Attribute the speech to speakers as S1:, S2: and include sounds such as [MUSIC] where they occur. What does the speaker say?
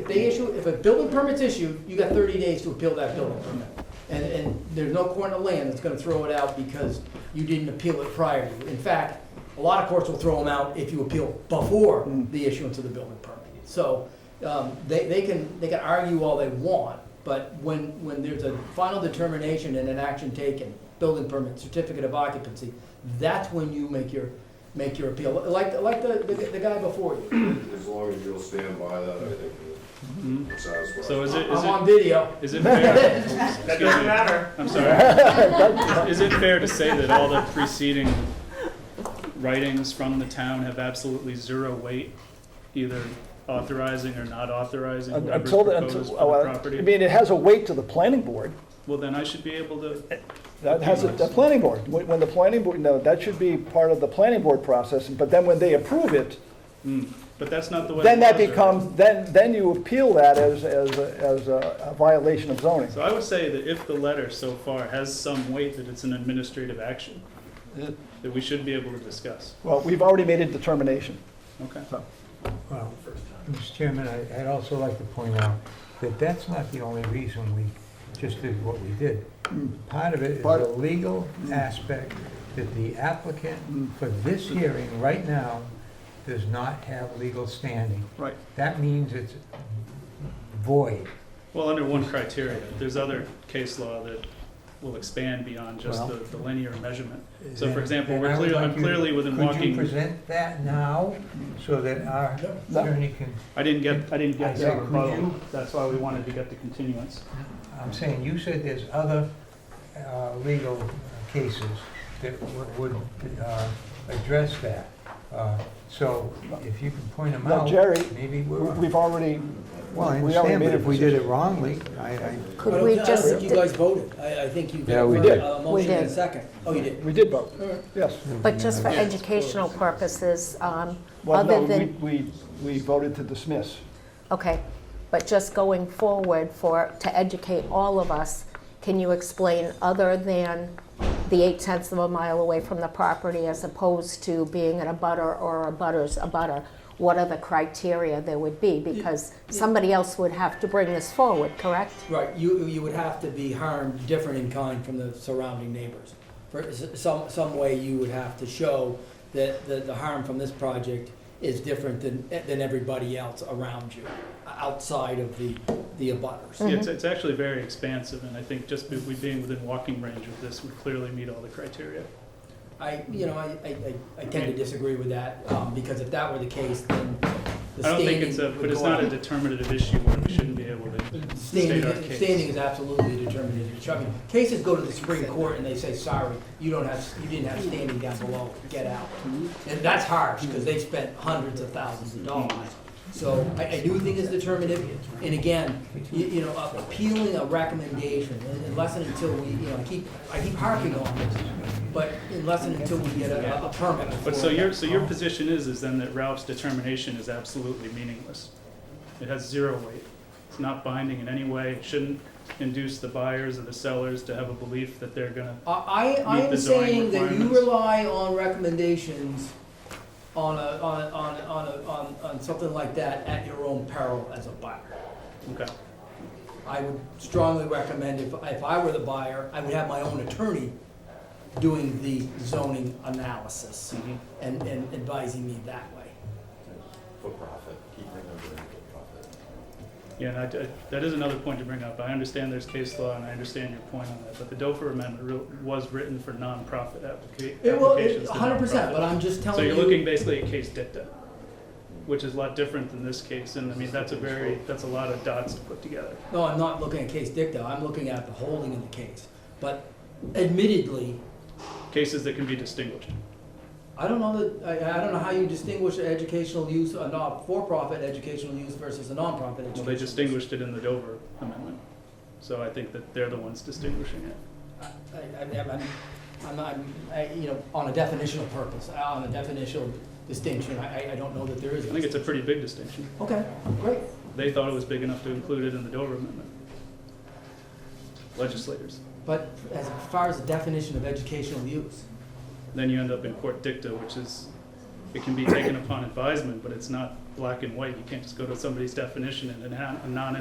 S1: If they issue, if a building permit's issued, you got thirty days to appeal that building permit. And, and there's no court in the land that's gonna throw it out because you didn't appeal it prior to. In fact, a lot of courts will throw them out if you appeal before the issuance of the building permit. So, um, they, they can, they can argue all they want, but when, when there's a final determination and an action taken, building permit, certificate of occupancy, that's when you make your, make your appeal. Like, like the, the the guy before you.
S2: As long as you'll stand by that, I think
S3: Mhm.
S2: it's satisfied.
S3: So is it,
S1: I'm
S3: is
S1: on
S3: it,
S1: video.
S3: is
S4: [LAUGHS]
S3: it fair,
S5: That
S3: Excuse
S5: doesn't
S3: me.
S5: matter.
S3: I'm sorry,
S4: [LAUGHS]
S3: is is it fair to say that all the preceding writings from the town have absolutely zero weight, either authorizing or not authorizing
S4: Un-
S3: whatever's
S4: Until, the-
S3: proposed for
S4: until,
S3: the
S4: oh, well, I
S3: property?
S4: mean, it has a weight to the planning board.
S3: Well, then I should be able to,
S4: Eh. That has, a- the planning board, when when the planning board, no, that should be part of the planning board process, but then when they approve it,
S3: mm, but that's not the way.
S4: then
S3: the
S4: that
S3: laws are.
S4: becomes, then, then you appeal that as, as, a- as a violation of zoning.
S3: So I would say that if the letter so far has some weight, that it's an administrative action, that we should be able to discuss.
S4: Well, we've already made a determination.
S3: Okay.
S6: Well, Mr. Chairman, I- I'd also like to point out that that's not the only reason we just did what we did. Hmm. Part of it Hmm. is
S4: Part-
S6: the legal aspect that the applicant for this hearing right now does not have legal standing.
S4: Right.
S6: That means it's void.
S3: Well, under one criteria, there's other case law that will expand beyond just the, the linear measurement. So for example,
S6: Then
S3: we're
S6: I would
S3: clear,
S6: like
S3: I'm
S6: you-
S3: clearly within
S6: Could you
S3: walking,
S6: present that now so that our
S4: No.
S6: attorney can,
S3: I didn't get, I didn't
S6: I
S3: get
S6: said,
S3: that
S6: could
S3: rebuttal.
S6: you-
S3: That's why we wanted to get the continuance.
S6: I'm saying, you said there's other uh, legal cases that w- would uh, address that. Uh, So if you can point them
S4: No,
S6: out,
S4: Jerry,
S6: maybe
S4: We-
S6: we're...
S4: We've already,
S6: Well, I
S4: we already
S6: understand,
S4: made
S6: but
S4: a
S6: if we did
S4: decision.
S6: it wrongly, I, I...
S1: I
S7: Could
S1: don't
S7: we
S1: thi- I
S7: just,
S1: don't think you guys voted. I, I think you.
S5: Yeah, we
S1: got
S4: did.
S1: A
S7: We
S1: motion and a
S7: did.
S1: second. Oh, you did.
S4: we did vote,
S1: All right.
S4: yes.
S7: but just for educational purposes, um,
S4: Well, no,
S7: other
S4: we,
S7: than,
S4: we, we voted to dismiss.
S7: okay, but just going forward for, to educate all of us, can you explain other than the eight tenths of a mile away from the property as opposed to being in a butter or a butter's a butter? What are the criteria there would be? Because somebody else would have to bring this forward, correct?
S1: Right, you, you would have to be harmed different in kind from the surrounding neighbors. For s- some, some way you would have to show that, that the harm from this project is different than, than everybody else around you, outside of the, the abutters.
S3: Yeah, It's, it's actually very expansive, and I think just be- we being within walking range of this would clearly meet all the criteria.
S1: I, you know, I, I, I- I tend to disagree with that, um, because if that were the case, then the
S3: I don't think
S1: standing
S3: it's a,
S1: would
S3: but it's
S1: go
S3: not a
S1: up.
S3: determinative issue where we shouldn't be able to state our
S1: Standing,
S3: case.
S1: standing is absolutely determinative. I mean, cases go to the Supreme Court and they say, sorry, you don't have, you didn't have standing down below, get out. And that's harsh, because they spent hundreds of thousands of dollars. So I, I do think it's determinative, and again, you, you know, appealing a recommendation, unless and until we, you know, I keep, I keep harping on this, but unless and until we get a, a permit.
S3: But so
S1: for-
S3: your, so your position is, is then that Ralph's determination is absolutely meaningless. It has zero weight. It's not binding in any way. It shouldn't induce the buyers or the sellers to have a belief that they're gonna.
S1: I, I I
S3: meet
S1: am
S3: the zoning
S1: saying that you
S3: requirements.
S1: rely on recommendations on a, on, a- on, a- on, a- on, on something like that at your own peril as a buyer.
S3: Okay,
S1: I would strongly recommend if, if I were the buyer, I would have my own attorney doing the zoning analysis
S3: Mhm.
S1: and, and advising me that way.
S2: For profit, keep remembering for profit.
S3: yeah, and I, I- that is another point to bring up. I understand there's case law and I understand your point on that, but the Dofer Amendment re- was written for nonprofit applica-
S1: It will,
S3: applications. to
S1: hundred percent, but
S3: nonprofit.
S1: I'm just
S3: So
S1: telling you.
S3: you're looking basically at case dicta, which is a lot different than this case, and I mean, that's a very, that's a lot of dots to put together.
S1: No, I'm not looking at case dicta, I'm looking at the holding of the case. But admittedly,
S3: Cases that can be distinguished.
S1: I don't know that, I, I don't know how you distinguish educational use, a non, for-profit educational use versus a nonprofit educational.
S3: Well, they
S1: use.
S3: distinguished it in the Dover Amendment, so I think that they're the ones distinguishing it.
S1: I, I, I'm- I'm, I'm, not- I'm, I, you know, on a definitional purpose, uh, on a definitional distinction, I, I- I don't know that there is.
S3: I think it's a pretty big distinction.
S1: Okay, great.
S3: They thought it was big enough to include it in the Dover Amendment. Legislators.
S1: But as far as the definition of educational use,
S3: Then you end up in court dicta, which is, it can be taken upon advisement, but it's not black and white. You can't just go to somebody's definition and a non- a non